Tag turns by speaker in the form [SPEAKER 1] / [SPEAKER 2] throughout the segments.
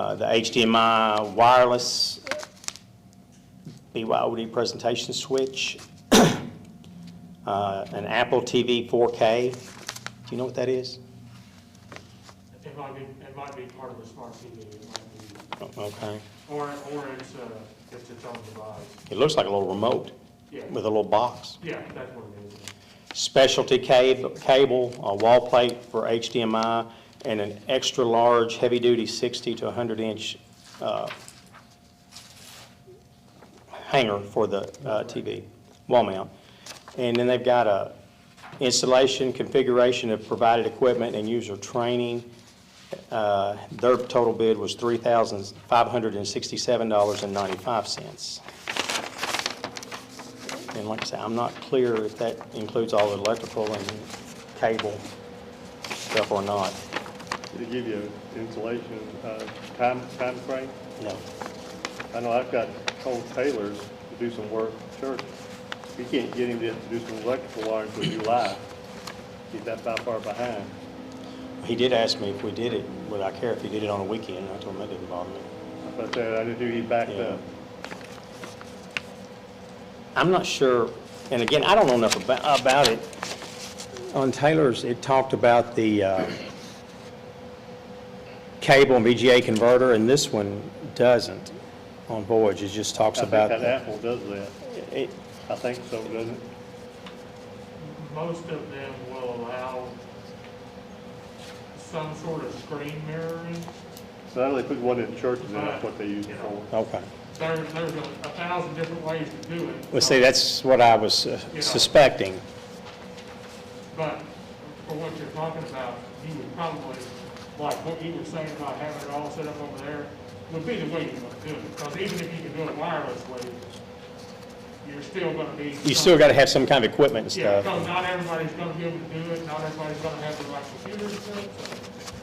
[SPEAKER 1] uh, the HDMI wireless BYOD presentation switch, uh, an Apple TV 4K. Do you know what that is?
[SPEAKER 2] It might be, it might be part of the smart TV, it might
[SPEAKER 1] O- Okay.
[SPEAKER 2] be, or, or it's, uh, it's its own device.
[SPEAKER 1] It looks like a little remote
[SPEAKER 2] Yeah,
[SPEAKER 1] with a little box.
[SPEAKER 2] yeah, that's what it is.
[SPEAKER 1] specialty cab- cable, a wall plate for HDMI, and an extra-large, heavy-duty 60 to 100-inch uh, hanger for the uh, TV, wall mount. And then they've got a installation, configuration of provided equipment and user training. Uh, Their total bid was $3,567.95. And like I say, I'm not clear if that includes all the electrical and cable stuff or not.
[SPEAKER 3] Did it give you insulation, uh, time, timeframe?
[SPEAKER 1] No.
[SPEAKER 3] I know I've got Cole Taylor to do some work, at church. We can't get him to do some electrical wire until July. He's that far, far behind.
[SPEAKER 1] He did ask me if we did it, would I care if he did it on a weekend, I told him that didn't bother me.
[SPEAKER 3] But uh, I just knew he backed
[SPEAKER 1] Yeah.
[SPEAKER 3] up.
[SPEAKER 1] I'm not sure, and again, I don't know enough about, about it. On Taylor's, it talked about the, uh, cable and VGA converter, and this one doesn't on Voyage, it just
[SPEAKER 3] I
[SPEAKER 1] talks
[SPEAKER 3] think
[SPEAKER 1] about.
[SPEAKER 3] that Apple does that.
[SPEAKER 1] It-
[SPEAKER 3] I think so, doesn't it?
[SPEAKER 2] Most of them will allow some sort of screen mirroring.
[SPEAKER 3] So I know they put one in churches, and that's what they use it for.
[SPEAKER 1] Okay.
[SPEAKER 2] There, there's a a thousand different ways to do it.
[SPEAKER 1] Well, see, that's what I was uh,
[SPEAKER 2] Yeah.
[SPEAKER 1] suspecting.
[SPEAKER 2] But for what you're talking about, you would probably, like what you were saying about having it all set up over there, would be the way you want to do it. Because even if you can do it wirelessly, you're still gonna be.
[SPEAKER 1] You still got to have some kind of equipment and
[SPEAKER 2] Yeah,
[SPEAKER 1] stuff.
[SPEAKER 2] because not everybody's gonna be able to do it, not everybody's gonna have the right computers to do it, so,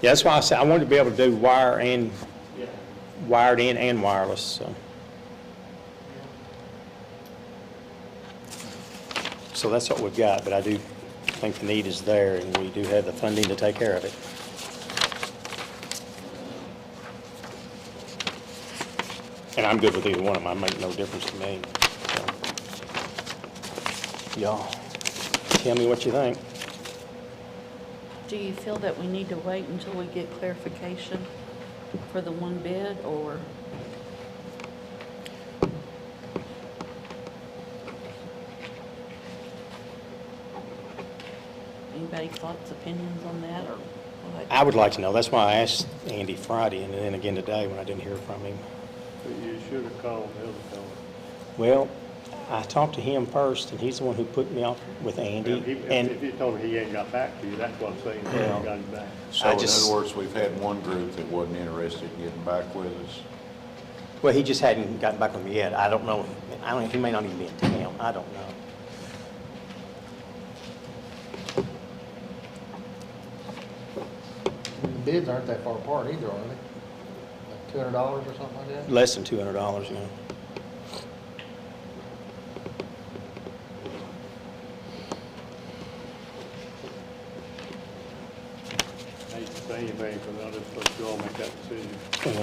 [SPEAKER 1] Yeah, that's why I said, I wanted to be able to do wire and,
[SPEAKER 2] yeah.
[SPEAKER 1] wired in and wireless, so. So that's what we've got, but I do think the need is there, and we do have the funding to take care of it. And I'm good with either one of them, it make no difference to me. so. Y'all, tell me what you think.
[SPEAKER 4] Do you feel that we need to wait until we get clarification for the one bid, or? Anybody thoughts, opinions on that, or what?
[SPEAKER 1] I would like to know, that's why I asked Andy Friday, and then again today when I didn't hear from him.
[SPEAKER 3] But you should have called the other fellow.
[SPEAKER 1] Well, I talked to him first, and he's the one who put me off with
[SPEAKER 3] If
[SPEAKER 1] Andy,
[SPEAKER 3] he- If
[SPEAKER 1] and,
[SPEAKER 3] he told me he ain't got back to you, that's what I'm saying, he
[SPEAKER 1] Yeah.
[SPEAKER 3] ain't got him back.
[SPEAKER 1] I
[SPEAKER 5] So in
[SPEAKER 1] just-
[SPEAKER 5] other words, we've had one group that wasn't interested in getting back with us.
[SPEAKER 1] well, he just hadn't gotten back with me yet. I don't know, I don't, he may not even be in town, I don't know.
[SPEAKER 6] Bids aren't that far apart either, are they? Like two hundred dollars or something like that?
[SPEAKER 1] Less than two hundred dollars, you know.
[SPEAKER 3] I ain't saying anything, but I'll just let you all make that decision.
[SPEAKER 1] Well,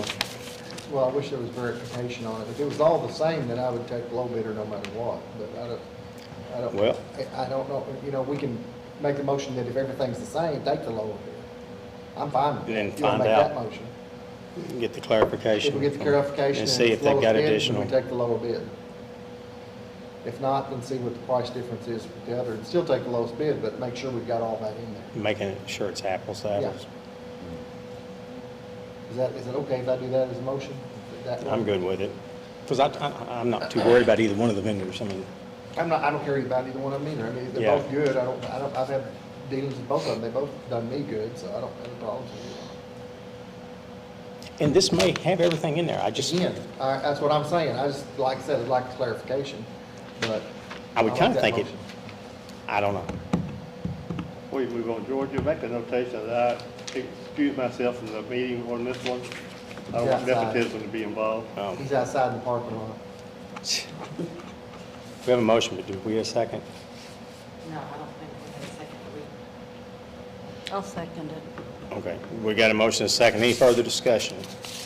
[SPEAKER 6] Well, I wish there was verification on it. If it was all the same, then I would take low bidder no matter what, but I don't, I don't.
[SPEAKER 1] Well-
[SPEAKER 6] I, I don't know, you know, we can make the motion that if everything's the same, take the lower bidder. I'm fine with that.
[SPEAKER 1] And then
[SPEAKER 6] You wanna
[SPEAKER 1] find
[SPEAKER 6] Make
[SPEAKER 1] out.
[SPEAKER 6] that motion.
[SPEAKER 1] Get the
[SPEAKER 6] If
[SPEAKER 1] clarification.
[SPEAKER 6] we get the
[SPEAKER 1] from-
[SPEAKER 6] clarification.
[SPEAKER 1] And see
[SPEAKER 6] it's
[SPEAKER 1] if they've
[SPEAKER 6] lowest
[SPEAKER 1] got
[SPEAKER 6] bid, then
[SPEAKER 1] additional,
[SPEAKER 6] We take the lower bid. If not, then see what the price difference is with the other, and still take the lowest bid, but make sure we've got all that in there.
[SPEAKER 1] making sure it's apples to apples.
[SPEAKER 6] Is that, is it okay if I do that as a motion? That-
[SPEAKER 1] I'm good with it, because I, I, I'm not too worried about either one of the vendors, I mean,
[SPEAKER 6] I'm not, I don't care about either one of them either. I mean,
[SPEAKER 1] Yeah.
[SPEAKER 6] they're both good. I don't, I don't, I've had dealings with both of them. They both done me good, so I don't have any problems with it.
[SPEAKER 1] and this may have everything in there, I just,
[SPEAKER 6] Again, I, that's what I'm saying. I just, like I said, I'd like clarification, but.
[SPEAKER 1] I would
[SPEAKER 6] like
[SPEAKER 1] kinda
[SPEAKER 6] that
[SPEAKER 1] think it-
[SPEAKER 6] motion.
[SPEAKER 1] I don't know.
[SPEAKER 3] Before you move on, George, you make a notation that I excuse myself from the meeting on this one. I don't want
[SPEAKER 6] Yeah, sorry.
[SPEAKER 3] nepotism to be involved.
[SPEAKER 1] Um,
[SPEAKER 6] He's outside in the parking lot.
[SPEAKER 1] We have a motion, but do we have a second?
[SPEAKER 7] No, I don't think we have a second. We-
[SPEAKER 4] I'll second it.
[SPEAKER 1] Okay, we got a motion and a second. Any further discussion?